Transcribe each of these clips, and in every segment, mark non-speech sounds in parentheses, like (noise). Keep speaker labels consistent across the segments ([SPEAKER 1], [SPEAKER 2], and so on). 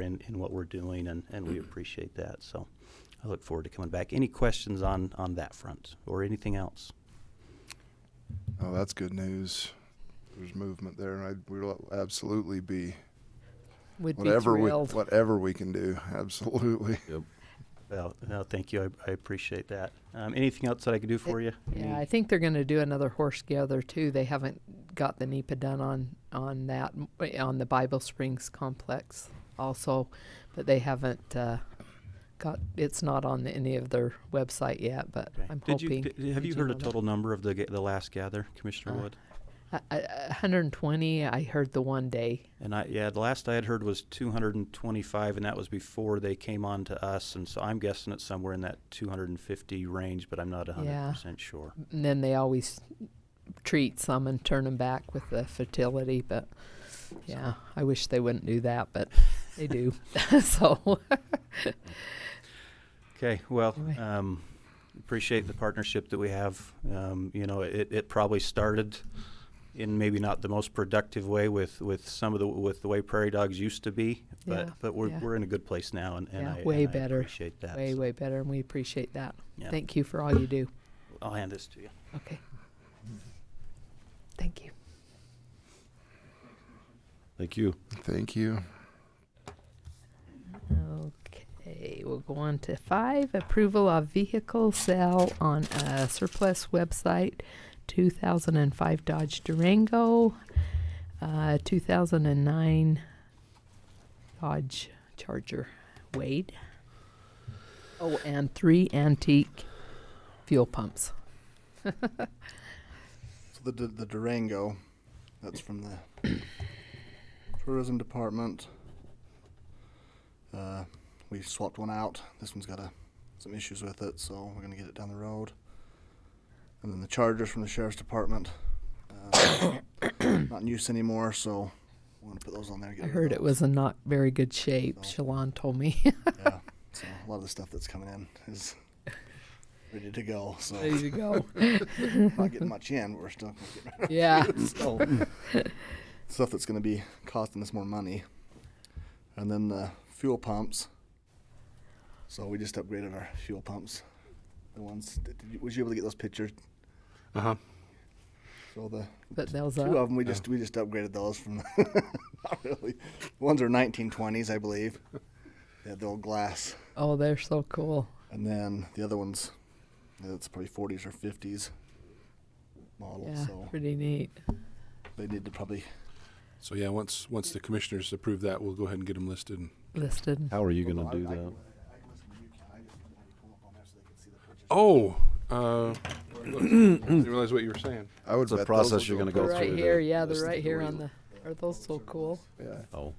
[SPEAKER 1] in, in what we're doing, and, and we appreciate that. So I look forward to coming back. Any questions on, on that front or anything else?
[SPEAKER 2] Oh, that's good news. There's movement there, and I, we'll absolutely be
[SPEAKER 3] would
[SPEAKER 2] whatever
[SPEAKER 3] be
[SPEAKER 2] we
[SPEAKER 3] thrilled.
[SPEAKER 2] whatever we can do. (laughs) Absolutely.
[SPEAKER 1] Well, no, thank you. I, I appreciate that. Um, anything else that I can do for you?
[SPEAKER 3] yeah,
[SPEAKER 2] Mm.
[SPEAKER 1] Any-
[SPEAKER 3] I think they're going to do another horse gather too. They haven't got the NEPA done on on that eh, on the Bible Springs complex also, but they haven't uh, got it's not on any of their website yet. But
[SPEAKER 1] Okay.
[SPEAKER 3] I'm
[SPEAKER 1] Did you-
[SPEAKER 3] hoping.
[SPEAKER 1] did- Have
[SPEAKER 3] did
[SPEAKER 1] you heard a
[SPEAKER 3] know that?
[SPEAKER 1] total number of the, ga- the last gather, Commissioner
[SPEAKER 3] Uh,
[SPEAKER 1] Wood?
[SPEAKER 3] I- I- 120. I heard the one day.
[SPEAKER 1] And I, yeah, the last I had heard was two hundred and twenty-five, and that was before they came on to us, and so I'm guessing it's somewhere in that two hundred and fifty range, but I'm not hundred
[SPEAKER 3] Yeah.
[SPEAKER 1] percent sure.
[SPEAKER 3] And then they always treat some and turn them back with the fertility. But yeah, I wish they wouldn't do that, but
[SPEAKER 1] (laughs)
[SPEAKER 3] they do. (laughs) so
[SPEAKER 1] Okay, well,
[SPEAKER 3] Anyway.
[SPEAKER 1] um, appreciate the partnership that we have. Um, you know, it, it probably started in maybe not the most productive way with, with some of the, with the way prairie dogs used to be, but,
[SPEAKER 3] Yeah,
[SPEAKER 1] but we're,
[SPEAKER 3] yeah.
[SPEAKER 1] we're in a good place now and, and
[SPEAKER 3] Yeah,
[SPEAKER 1] I,
[SPEAKER 3] way
[SPEAKER 1] and I
[SPEAKER 3] better,
[SPEAKER 1] appreciate that.
[SPEAKER 3] way,
[SPEAKER 1] So
[SPEAKER 3] way better. And we appreciate that.
[SPEAKER 1] Yeah.
[SPEAKER 3] Thank you for all you do.
[SPEAKER 1] I'll hand this to you.
[SPEAKER 3] Okay. Thank you.
[SPEAKER 4] Thank you.
[SPEAKER 2] Thank you.
[SPEAKER 3] Okay, we'll go on to five approval of vehicle sale on a surplus website 2005 Dodge Durango, uh, 2009 Dodge Charger Wade. Oh, and three antique fuel pumps.
[SPEAKER 5] So the Du- the Durango, that's from the (coughs) tourism department. Uh, we swapped one out. This one's got a, some issues with it, so we're gonna get it down the road. And then the Chargers from the sheriff's department, uh, (coughs) not in use anymore, so we're gonna put those on there. and get
[SPEAKER 3] I
[SPEAKER 5] rid of
[SPEAKER 3] heard it
[SPEAKER 5] those.
[SPEAKER 3] was in not very good shape.
[SPEAKER 5] So-
[SPEAKER 3] Shalon told me.
[SPEAKER 5] Yeah. So a lot of the stuff that's coming in is ready to go. So
[SPEAKER 3] Ready to go.
[SPEAKER 5] not getting much in, but we're still gonna get rid
[SPEAKER 3] (laughs)
[SPEAKER 5] of (laughs)
[SPEAKER 3] yeah.
[SPEAKER 5] so stuff that's going to be costing us more money and then the fuel pumps so we just upgraded our fuel pumps the ones did you, was you able to get those pictures
[SPEAKER 4] Uh-huh.
[SPEAKER 5] so the
[SPEAKER 3] But those
[SPEAKER 5] two
[SPEAKER 3] up.
[SPEAKER 5] of them we just we just upgraded those from (laughs) not really ones are 1920s i believe they had the old glass
[SPEAKER 3] Oh, they're so cool.
[SPEAKER 5] and then the other ones it's probably 40s or 50s model
[SPEAKER 3] Yeah,
[SPEAKER 5] so
[SPEAKER 3] pretty neat.
[SPEAKER 5] they need to probably
[SPEAKER 6] So yeah, once, once the commissioners approve that, we'll go ahead and get them listed. and-
[SPEAKER 3] Listed.
[SPEAKER 4] How are you going to do that?
[SPEAKER 6] Oh, uh, (clears throat) I didn't realize what you were saying.
[SPEAKER 2] I would
[SPEAKER 4] It's a
[SPEAKER 2] bet those
[SPEAKER 4] process
[SPEAKER 2] will
[SPEAKER 4] you're gonna
[SPEAKER 3] They're
[SPEAKER 4] go
[SPEAKER 3] right
[SPEAKER 4] through
[SPEAKER 3] here,
[SPEAKER 4] the-
[SPEAKER 3] yeah, they're
[SPEAKER 4] listen
[SPEAKER 3] right
[SPEAKER 4] to
[SPEAKER 3] here
[SPEAKER 4] the
[SPEAKER 3] on the. Are those so cool?
[SPEAKER 2] Yeah.
[SPEAKER 4] Oh,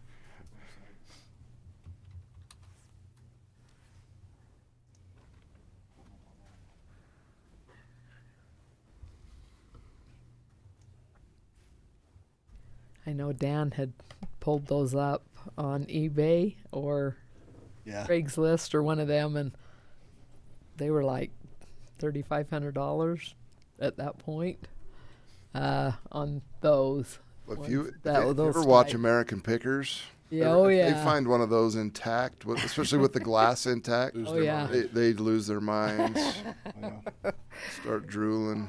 [SPEAKER 3] I know Dan had pulled those up on eBay or
[SPEAKER 5] yeah
[SPEAKER 3] Craigslist or one of them, and they were like thirty-five hundred dollars at that point uh, on those.
[SPEAKER 2] If you,
[SPEAKER 3] Once that-
[SPEAKER 2] if you
[SPEAKER 3] those
[SPEAKER 2] ever watch
[SPEAKER 3] type.
[SPEAKER 2] American Pickers,
[SPEAKER 3] Yeah,
[SPEAKER 2] if
[SPEAKER 3] oh
[SPEAKER 2] they
[SPEAKER 3] yeah.
[SPEAKER 2] find one of those intact, with- especially
[SPEAKER 3] (laughs)
[SPEAKER 2] with the glass intact,
[SPEAKER 6] Lose
[SPEAKER 3] Oh,
[SPEAKER 6] their
[SPEAKER 3] yeah.
[SPEAKER 6] mind.
[SPEAKER 2] they, they lose their
[SPEAKER 3] (laughs)
[SPEAKER 2] minds,
[SPEAKER 5] yeah.
[SPEAKER 2] start drooling.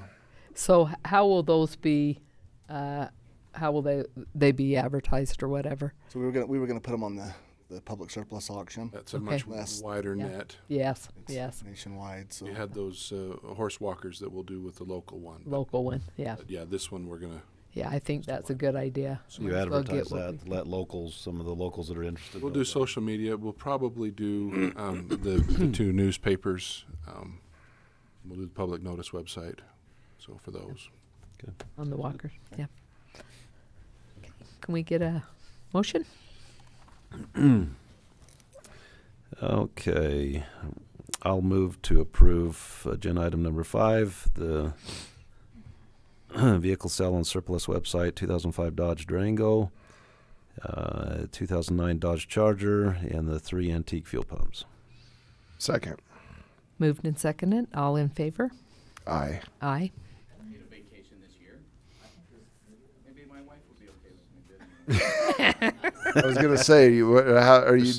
[SPEAKER 3] So h- how will those be? Uh, how will they they be advertised or whatever?
[SPEAKER 5] So we were gonna we were gonna put them on the, the public surplus auction
[SPEAKER 6] That's a much
[SPEAKER 3] Okay.
[SPEAKER 5] Less-
[SPEAKER 6] wider
[SPEAKER 3] Yeah.
[SPEAKER 6] net.
[SPEAKER 3] Yes,
[SPEAKER 5] It's
[SPEAKER 3] yes,
[SPEAKER 5] nationwide. So
[SPEAKER 6] We had those uh, horse walkers that we'll do with the local one. but-
[SPEAKER 3] local one. Yeah,
[SPEAKER 6] but Yeah, this one we're gonna,
[SPEAKER 3] yeah. I think that's a good idea.
[SPEAKER 4] so you
[SPEAKER 3] Might as well get
[SPEAKER 4] advertise
[SPEAKER 3] what we
[SPEAKER 4] that,
[SPEAKER 3] can.
[SPEAKER 4] let locals, some of the locals that are interested.
[SPEAKER 6] we'll
[SPEAKER 4] know
[SPEAKER 6] do
[SPEAKER 4] about it.
[SPEAKER 6] social media. We'll probably do um, the, the two newspapers. Um, we'll do the public notice website. So for those,
[SPEAKER 3] On the walkers, yeah. Can we get a motion?
[SPEAKER 4] Okay, I'll move to approve agenda item number five, the (clears throat) vehicle sale on surplus website, 2005 Dodge Durango, uh, 2009 Dodge Charger, and the three antique fuel pumps.
[SPEAKER 2] Second,
[SPEAKER 3] Moved and seconded, all in favor?
[SPEAKER 2] aye.
[SPEAKER 3] Aye.
[SPEAKER 7] need a vacation this year. Maybe my wife will be okay with me.
[SPEAKER 2] I was gonna say, you, what- how, are you